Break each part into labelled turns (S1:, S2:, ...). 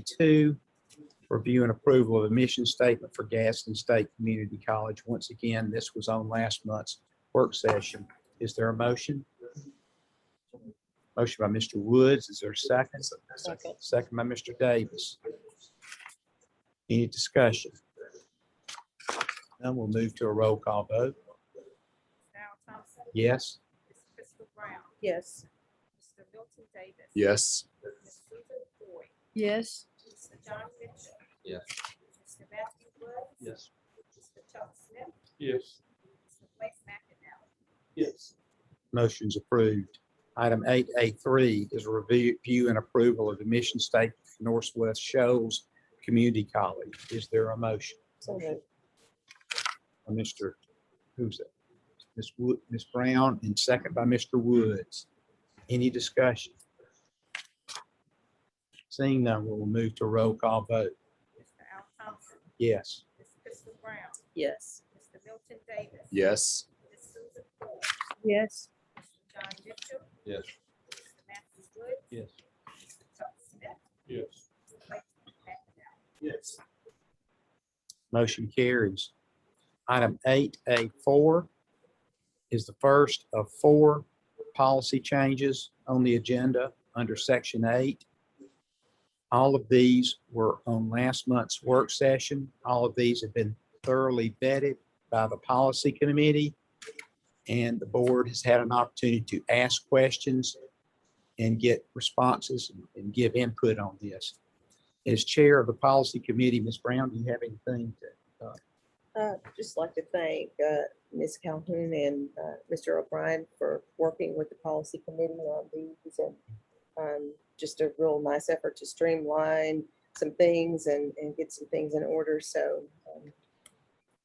S1: A2, review and approval of a mission statement for Gaston State Community College. Once again, this was on last month's work session. Is there a motion? Motion by Mr. Woods. Is there a second?
S2: Second.
S1: Second by Mr. Davis. Any discussion? None. We'll move to a roll call vote.
S3: Al Thompson.
S1: Yes?
S3: Ms. Crystal Brown.
S2: Yes.
S3: Mr. Milton Davis.
S4: yes,
S3: Ms. Susan Boyd.
S2: Yes.
S3: Mr. John Mitchell.
S5: Yes.
S3: Mr. Matthew Woods.
S5: Yes.
S3: Mr. Chuck Smith.
S5: Yes.
S3: Mr. Blake McInnes.
S5: Yes.
S1: Motion's approved. Item eight A three is a review and approval of the mission statement for Northwest Shoals Community College. Is there a motion?
S2: So moved.
S1: By Mr. Who's that? Ms. Wood, Ms. Brown, and second by Mr. Woods. Any discussion? Seeing none, we'll move to roll call vote.
S3: Mr. Al Thompson.
S1: Yes.
S3: Ms. Crystal Brown.
S2: Yes.
S3: Mr. Milton Davis.
S4: yes,
S3: Ms. Susan Boyd.
S2: Yes.
S3: Mr. John Mitchell.
S5: Yes.
S3: Mr. Matthew Woods.
S5: Yes.
S3: Mr. Chuck Smith.
S5: Yes.
S3: Mr. Blake McInnes.
S5: Yes.
S1: Motion carries. Item eight A four is the first of four policy changes on the agenda under section eight. All of these were on last month's work session. All of these have been thoroughly vetted by the policy committee. And the board has had an opportunity to ask questions and get responses and give input on this. As chair of the policy committee, Ms. Brown, do you have anything to
S2: Uh, just like to thank, uh, Ms. Calhoun and, uh, Mr. O'Brien for working with the policy committee on these and, um, just a real nice effort to streamline some things and, and get some things in order. So, um,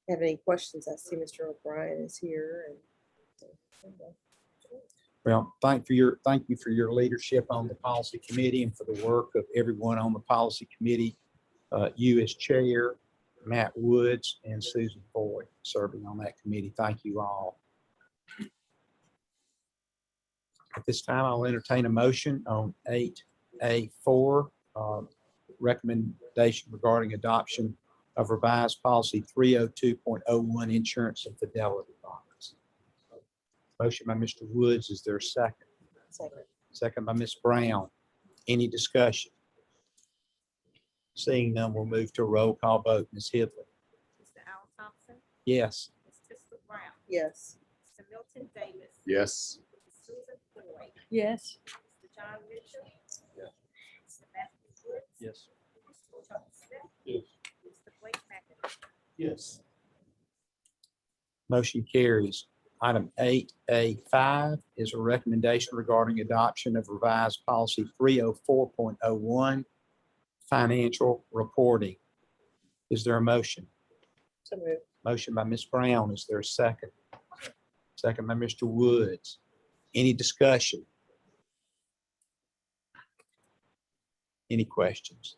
S2: have any questions? I see Mr. O'Brien is here and.
S1: Well, thank for your, thank you for your leadership on the policy committee and for the work of everyone on the policy committee. Uh, You as chair, Matt Woods and Susan Boyd serving on that committee. Thank you all. At this time, I'll entertain a motion on eight A four, um, recommendation regarding adoption of revised policy three oh two point oh one, insurance and fidelity bonds. Motion by Mr. Woods. Is there a second?
S2: Second.
S1: Second by Ms. Brown. Any discussion? Seeing none, we'll move to a roll call vote. Ms. Hibble?
S3: Mr. Al Thompson.
S1: Yes.
S3: Ms. Crystal Brown.
S2: Yes.
S3: Mr. Milton Davis.
S4: yes,
S3: Ms. Susan Boyd.
S2: Yes.
S3: Mr. John Mitchell.
S5: Yes.
S3: Mr. Matthew Woods.
S5: Yes.
S3: Mr. Chuck Smith.
S5: Yes.
S3: Mr. Blake McInnes.
S5: Yes.
S1: Motion carries. Item eight A five is a recommendation regarding adoption of revised policy three oh four point oh one, financial reporting. Is there a motion?
S2: So moved.
S1: Motion by Ms. Brown. Is there a second? Second by Mr. Woods. Any discussion? Any questions?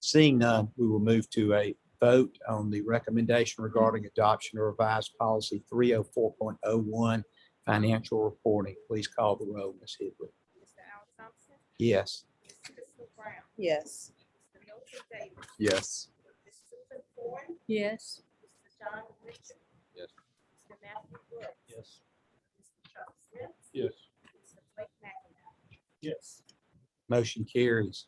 S1: Seeing none, we will move to a vote on the recommendation regarding adoption of revised policy 304.01, financial reporting. Please call the roll, Ms. Hibble.
S3: Mr. Al Thompson.
S1: Yes.
S3: Ms. Crystal Brown.
S2: Yes.
S3: Mr. Milton Davis.
S4: yes,
S3: Ms. Susan Boyd.
S2: Yes.
S3: Mr. John Mitchell.
S5: Yes.
S3: Mr. Matthew Woods.
S5: Yes.
S3: Mr. Chuck Smith.
S5: Yes.
S3: Mr. Blake McInnes.
S5: Yes.
S1: Motion carries.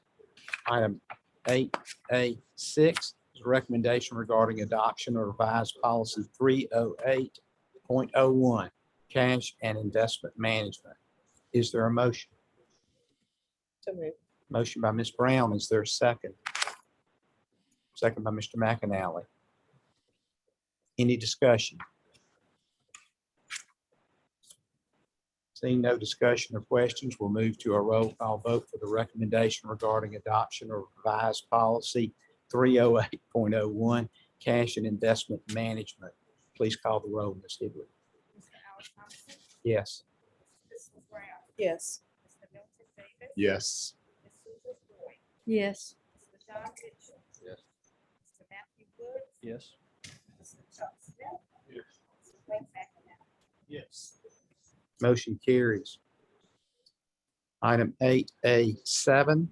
S1: Item eight A six is a recommendation regarding adoption of revised policy three oh eight point oh one, cash and investment management. Is there a motion?
S2: So moved.
S1: Motion by Ms. Brown. Is there a second? Second by Mr. McInally. Any discussion? Seeing no discussion or questions, we'll move to a roll call vote for the recommendation regarding adoption of revised policy 308.01, cash and investment management. Please call the roll, Ms. Hibble.
S3: Mr. Al Thompson.
S1: Yes.
S3: Ms. Crystal Brown.
S2: Yes.
S3: Mr. Milton Davis.
S4: yes,
S3: Ms. Susan Boyd.
S2: Yes.
S3: Mr. John Mitchell.
S5: Yes.
S3: Mr. Matthew Woods.
S5: Yes.
S3: Mr. Chuck Smith.
S5: Yes.
S3: Mr. Blake McInnes.
S5: Yes.
S1: Motion carries. Item eight A seven